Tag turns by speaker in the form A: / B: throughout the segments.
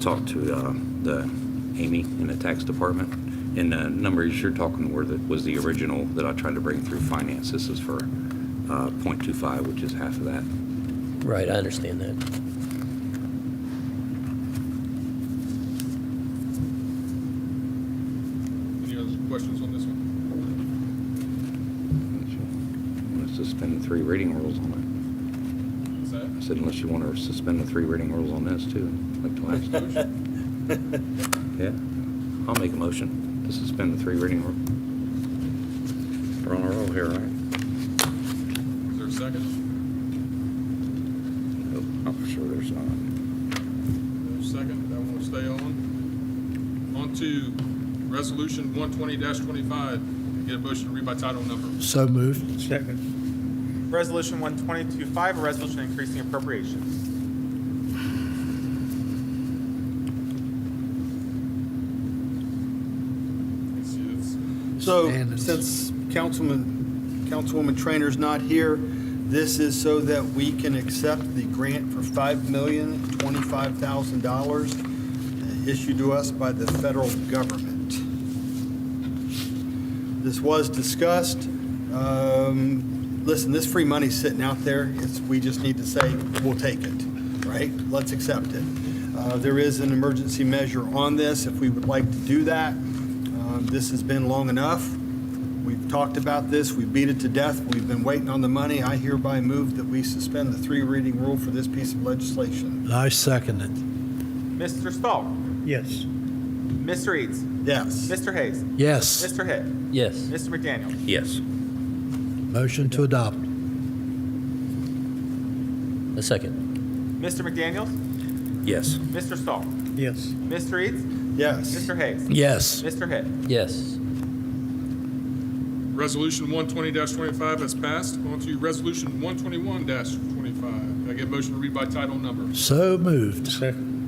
A: Talk to uh, the Amy in the tax department, and the numbers you're talking were that was the original that I tried to bring through finance. This is for uh, .25, which is half of that.
B: Right, I understand that.
C: Any other questions on this one?
A: Unless you want to suspend the three reading rules on
C: Is that?
A: it. I said unless you want to suspend the three reading rules on this too, like the last time. Yeah, I'll make a motion to suspend the three reading rule. We're on a roll here, right?
C: Is there a second?
A: Nope, Oh, I'm sure there's not.
C: No second, that one will stay on. On to Resolution one twenty twenty-five, get a motion to read by title number.
D: So moved.
E: Resolution 1225, a resolution increasing appropriations.
C: It's- it's-
F: So,
D: Standards.
F: since Councilman, Councilwoman Trainer's not here, this is so that we can accept the grant for five million twenty-five thousand dollars issued to us by the federal government. This was discussed. Um, Listen, this free money's sitting out there. It's, we just need to say, we'll take it, right? Let's accept it. Uh, There is an emergency measure on this if we would like to do that. Um, This has been long enough. We've talked about this. We beat it to death. We've been waiting on the money. I hereby move that we suspend the three reading rule for this piece of legislation.
D: I second it.
E: Mr. Stahl?
D: Yes.
E: Mr. Eads?
F: Yes.
E: Mr. Hayes?
D: Yes.
E: Mr. Hitt?
B: Yes,
E: Mr. McDaniel?
A: Yes.
D: Motion to adopt.
B: a second.
E: Mr. McDaniel?
A: Yes.
E: Mr. Stahl?
D: Yes.
E: Mr. Eads?
F: Yes.
E: Mr. Hayes?
D: Yes.
E: Mr. Hitt?
B: Yes,
C: Resolution one twenty twenty-five has passed. On to Resolution one twenty-one twenty-five, I get a motion to read by title number.
D: So moved.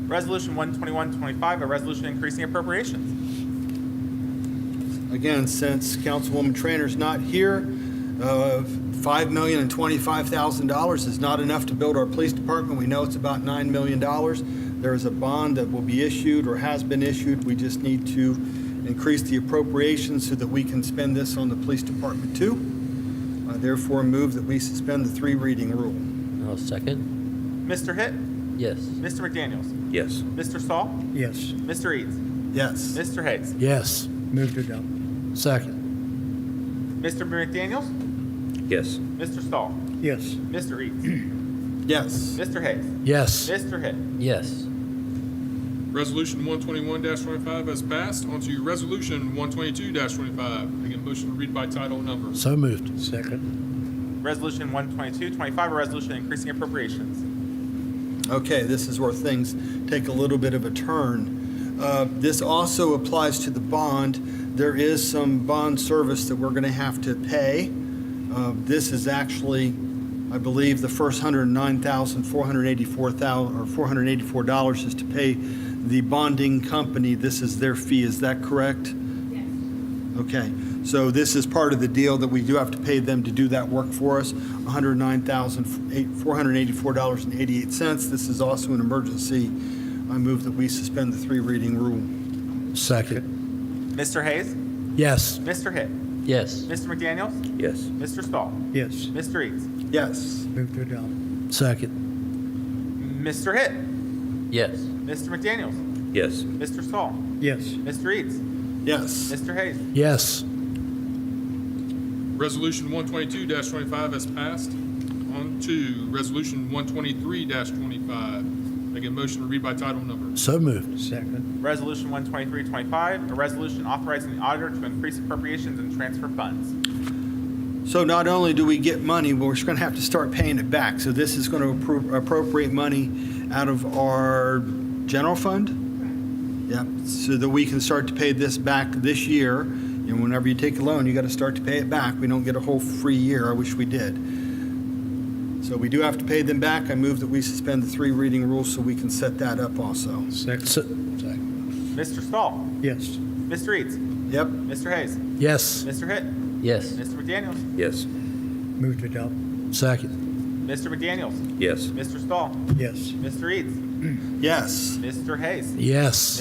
E: Resolution 12125, a resolution increasing appropriations.
F: Again, since Councilwoman Trainer's not here, uh, $5 million and $25,000 is not enough to build our police department. We know it's about $9 million. There is a bond that will be issued or has been issued. We just need to increase the appropriation so that we can spend this on the police department too. I therefore move that we suspend the three reading rule.
B: I'll second.
E: Mr. Hitt?
B: Yes,
E: Mr. McDaniel?
A: Yes.
E: Mr. Stahl?
D: Yes.
E: Mr. Eads?
F: Yes.
E: Mr. Hayes?
D: Yes. Move to adopt. Second.
E: Mr. McDaniel?
A: Yes.
E: Mr. Stahl?
D: Yes.
E: Mr. Eads?
F: Yes.
E: Mr. Hayes?
D: Yes.
E: Mr. Hitt?
B: yes,
C: Resolution one twenty-one twenty-five has passed. On to Resolution one twenty-two twenty-five, I get a motion to read by title number.
D: So moved. Second.
E: Resolution 12225, a resolution increasing appropriations.
F: Okay, this is where things take a little bit of a turn. Uh, This also applies to the bond. There is some bond service that we're going to have to pay. Uh, This is actually, I believe, the first $109,484 or $484 is to pay the bonding company. This is their fee, is that correct? Okay, so this is part of the deal that we do have to pay them to do that work for us, $109,484.88. This is also an emergency. I move that we suspend the three reading rule.
D: Second.
E: Mr. Hayes?
D: Yes.
E: Mr. Hitt?
B: yes,
E: Mr. McDaniel?
A: Yes.
E: Mr. Stahl?
D: Yes.
E: Mr. Eads?
F: Yes,
D: Move to adopt. Second.
E: Mr. Hitt?
B: yes,
E: Mr. McDaniel?
A: Yes.
E: Mr. Stahl?
D: Yes.
E: Mr. Eads?
F: yes,
E: Mr. Hayes?
D: Yes.
C: Resolution one twenty-two twenty-five has passed. On to Resolution one twenty-three twenty-five. Make a motion to read by title number.
D: So moved. Second.
E: Resolution 12325, a resolution authorizing the auditor to increase appropriations and transfer funds.
F: So not only do we get money, we're just going to have to start paying it back. So this is going to appro- appropriate money out of our general fund? Yep, so that we can start to pay this back this year. And whenever you take a loan, you got to start to pay it back. We don't get a whole free year. I wish we did. So we do have to pay them back. I move that we suspend the three reading rule so we can set that up also.
D: Second.
E: Mr. Stahl?
D: Yes.
E: Mr. Eads?
F: Yep,
E: Mr. Hayes?
D: Yes.
E: Mr. Hitt?
B: yes,
E: Mr. McDaniel?
A: Yes.
D: Move to adopt. Second.
E: Mr. McDaniel?
A: Yes.
E: Mr. Stahl?
D: Yes.
E: Mr. Eads?
G: Yes.
F: Mr. Hayes.
E: Yes.